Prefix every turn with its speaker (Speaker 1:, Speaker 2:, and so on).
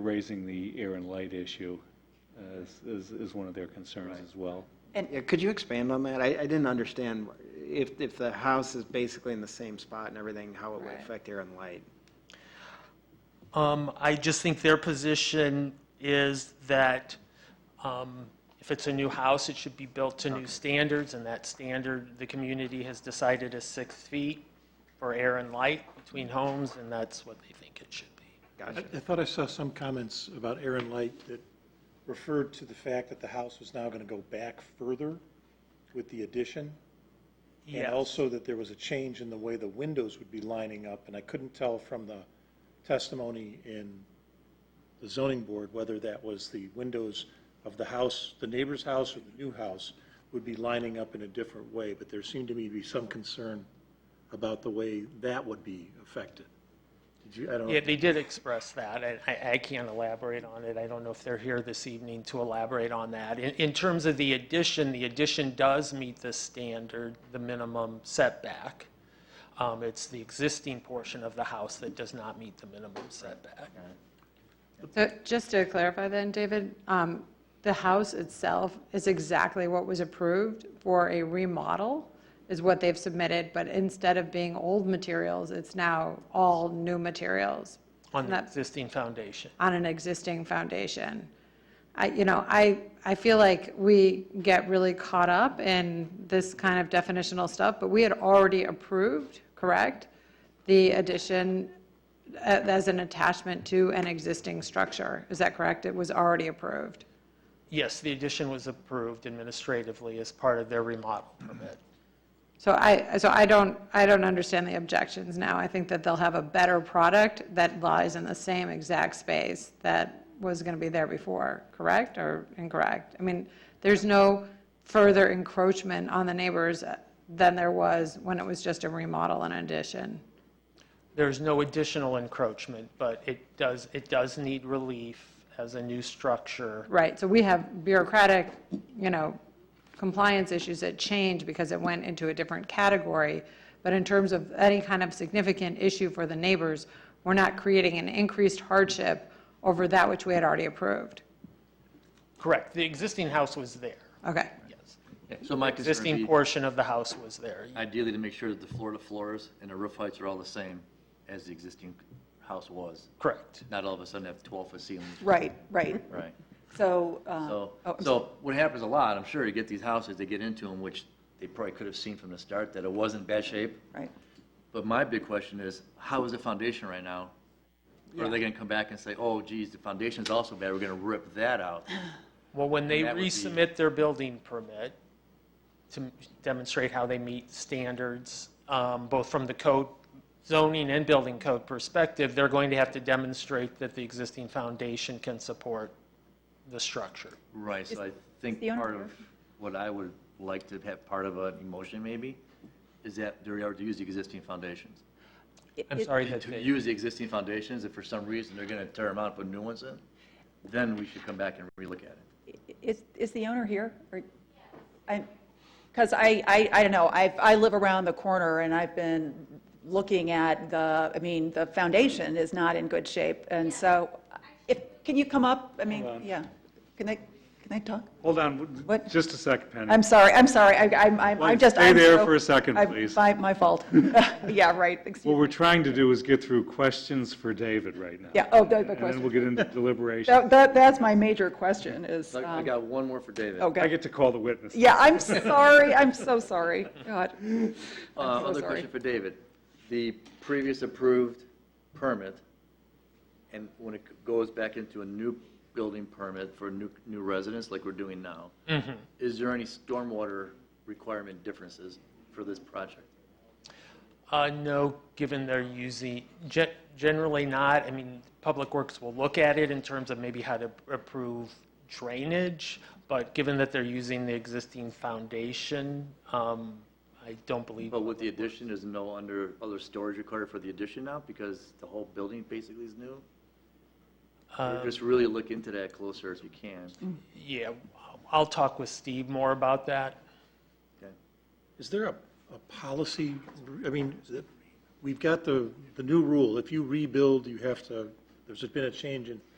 Speaker 1: raising the air and light issue as, as, as one of their concerns as well.
Speaker 2: Yeah, could you expand on that? I, I didn't understand if, if the house is basically in the same spot and everything, how it would
Speaker 3: Right.
Speaker 2: affect air and light.
Speaker 4: Um, I just think their position is that, um, if it's a new house, it should be built to new standards, and that standard, the community has decided is six feet for air and light between homes, and that's what they think it should be.
Speaker 2: Gotcha.
Speaker 5: I I thought I saw some comments about air and light that referred to the fact that the house was now going to go back further with the addition. And
Speaker 4: Yes.
Speaker 5: also that there was a change in the way the windows would be lining up, and I couldn't tell from the testimony in the zoning board whether that was the windows of the house, the neighbor's house or the new house would be lining up in a different way, but there seemed to me to be some concern about the way that would be affected. Did you, I don't.
Speaker 4: Yeah, they did express that, and I, I can't elaborate on it. I don't know if they're here this evening to elaborate on that. In, in terms of the addition, the addition does meet the standard, the minimum setback. Um, it's the existing portion of the house that does not meet the minimum setback.
Speaker 3: So just to clarify then, David, um, the house itself is exactly what was approved for a remodel, is what they've submitted, but instead of being old materials, it's now all new materials
Speaker 4: On the
Speaker 3: That-
Speaker 4: existing foundation.
Speaker 3: on an existing foundation. I, you know, I, I feel like we get really caught up in this kind of definitional stuff, but we had already approved, correct? The addition uh, as an attachment to an existing structure. Is that correct? It was already approved.
Speaker 4: Yes, the addition was approved administratively as part of their remodel permit.
Speaker 3: So I, so I don't, I don't understand the objections now. I think that they'll have a better product that lies in the same exact space that was going to be there before, correct or incorrect? I mean, there's no further encroachment on the neighbors uh, than there was when it was just a remodel and addition.
Speaker 4: There's no additional encroachment, but it does, it does need relief as a new structure.
Speaker 3: Right, so we have bureaucratic, you know, compliance issues that change because it went into a different category. But in terms of any kind of significant issue for the neighbors, we're not creating an increased hardship over that which we had already approved.
Speaker 4: Correct, the existing house was there.
Speaker 3: Okay,
Speaker 4: Yes.
Speaker 6: So my concern
Speaker 4: Existing
Speaker 6: would be
Speaker 4: portion of the house was there.
Speaker 6: ideally to make sure that the floor to floors and the roof heights are all the same as the existing house was.
Speaker 4: Correct.
Speaker 6: Not all of a sudden have 12-foot ceilings.
Speaker 7: Right, right.
Speaker 6: Right.
Speaker 7: So, uh,
Speaker 6: So,
Speaker 7: oh, I'm
Speaker 6: so what happens a lot, I'm sure, you get these houses, they get into them, which they probably could have seen from the start, that it was in bad shape.
Speaker 7: right.
Speaker 6: But my big question is, how is the foundation right now? Or are they going to come back and say, oh geez, the foundation's also bad, we're going to rip that out?
Speaker 4: Well, when they
Speaker 6: that would be-
Speaker 4: resubmit their building permit to demonstrate how they meet standards, um, both from the code, zoning and building code perspective, they're going to have to demonstrate that the existing foundation can support the structure.
Speaker 6: Right, so I think
Speaker 7: the owner
Speaker 6: part of
Speaker 7: here?
Speaker 6: what I would like to have part of an emotion maybe, is that they are to use the existing foundations.
Speaker 4: I'm sorry that
Speaker 6: To
Speaker 4: they,
Speaker 6: use the existing foundations, if for some reason they're gonna tear them out, and put new ones in, then we should come back and relook at it.
Speaker 7: Is, is the owner here? Or I, because I, I, I don't know, I, I live around the corner and I've been looking at the, I mean, the foundation is not in good shape. And so, if, can you come up? I mean, yeah. Can they, can they talk?
Speaker 1: Hold on,
Speaker 7: What?
Speaker 1: just a second, Penny.
Speaker 7: I'm sorry, I'm sorry, I, I'm, I'm-
Speaker 1: Well,
Speaker 7: I'm just.
Speaker 1: stay
Speaker 7: I'm
Speaker 1: there
Speaker 7: so-
Speaker 1: for a second,
Speaker 7: I'm-
Speaker 1: please.
Speaker 7: My, my fault. Yeah, right, excuse
Speaker 1: What
Speaker 7: me.
Speaker 1: we're trying to do is get through questions for David right now.
Speaker 7: Yeah, oh, the, the
Speaker 1: And then
Speaker 7: question.
Speaker 1: we'll get into deliberation.
Speaker 7: That, that- that's my major question is,
Speaker 6: I I
Speaker 7: um,
Speaker 6: got one more for David.
Speaker 1: I
Speaker 7: okay.
Speaker 1: get to call the witness.
Speaker 7: Yeah, I'm sorry, I'm so sorry, God.
Speaker 6: Uh,
Speaker 7: I'm so
Speaker 6: Other
Speaker 7: sorry.
Speaker 6: question for David. The previous approved permit, and when it goes back into a new building permit for new, new residents like we're doing now, is there any stormwater requirement differences for this project?
Speaker 4: uh, no, given they're using, ge- generally not. I mean, Public Works will look at it in terms of maybe how to approve drainage, but given that they're using the existing foundation, um, I don't believe
Speaker 6: But with the addition, there's no under, other storage required for the addition now because the whole building basically is new? Or Just really look into that closer if you can.
Speaker 4: Yeah, I'll talk with Steve more about that.
Speaker 6: Okay.
Speaker 5: Is there a, a policy, I mean, is it- we've got the, the new rule, if you rebuild, you have to, there's been a change in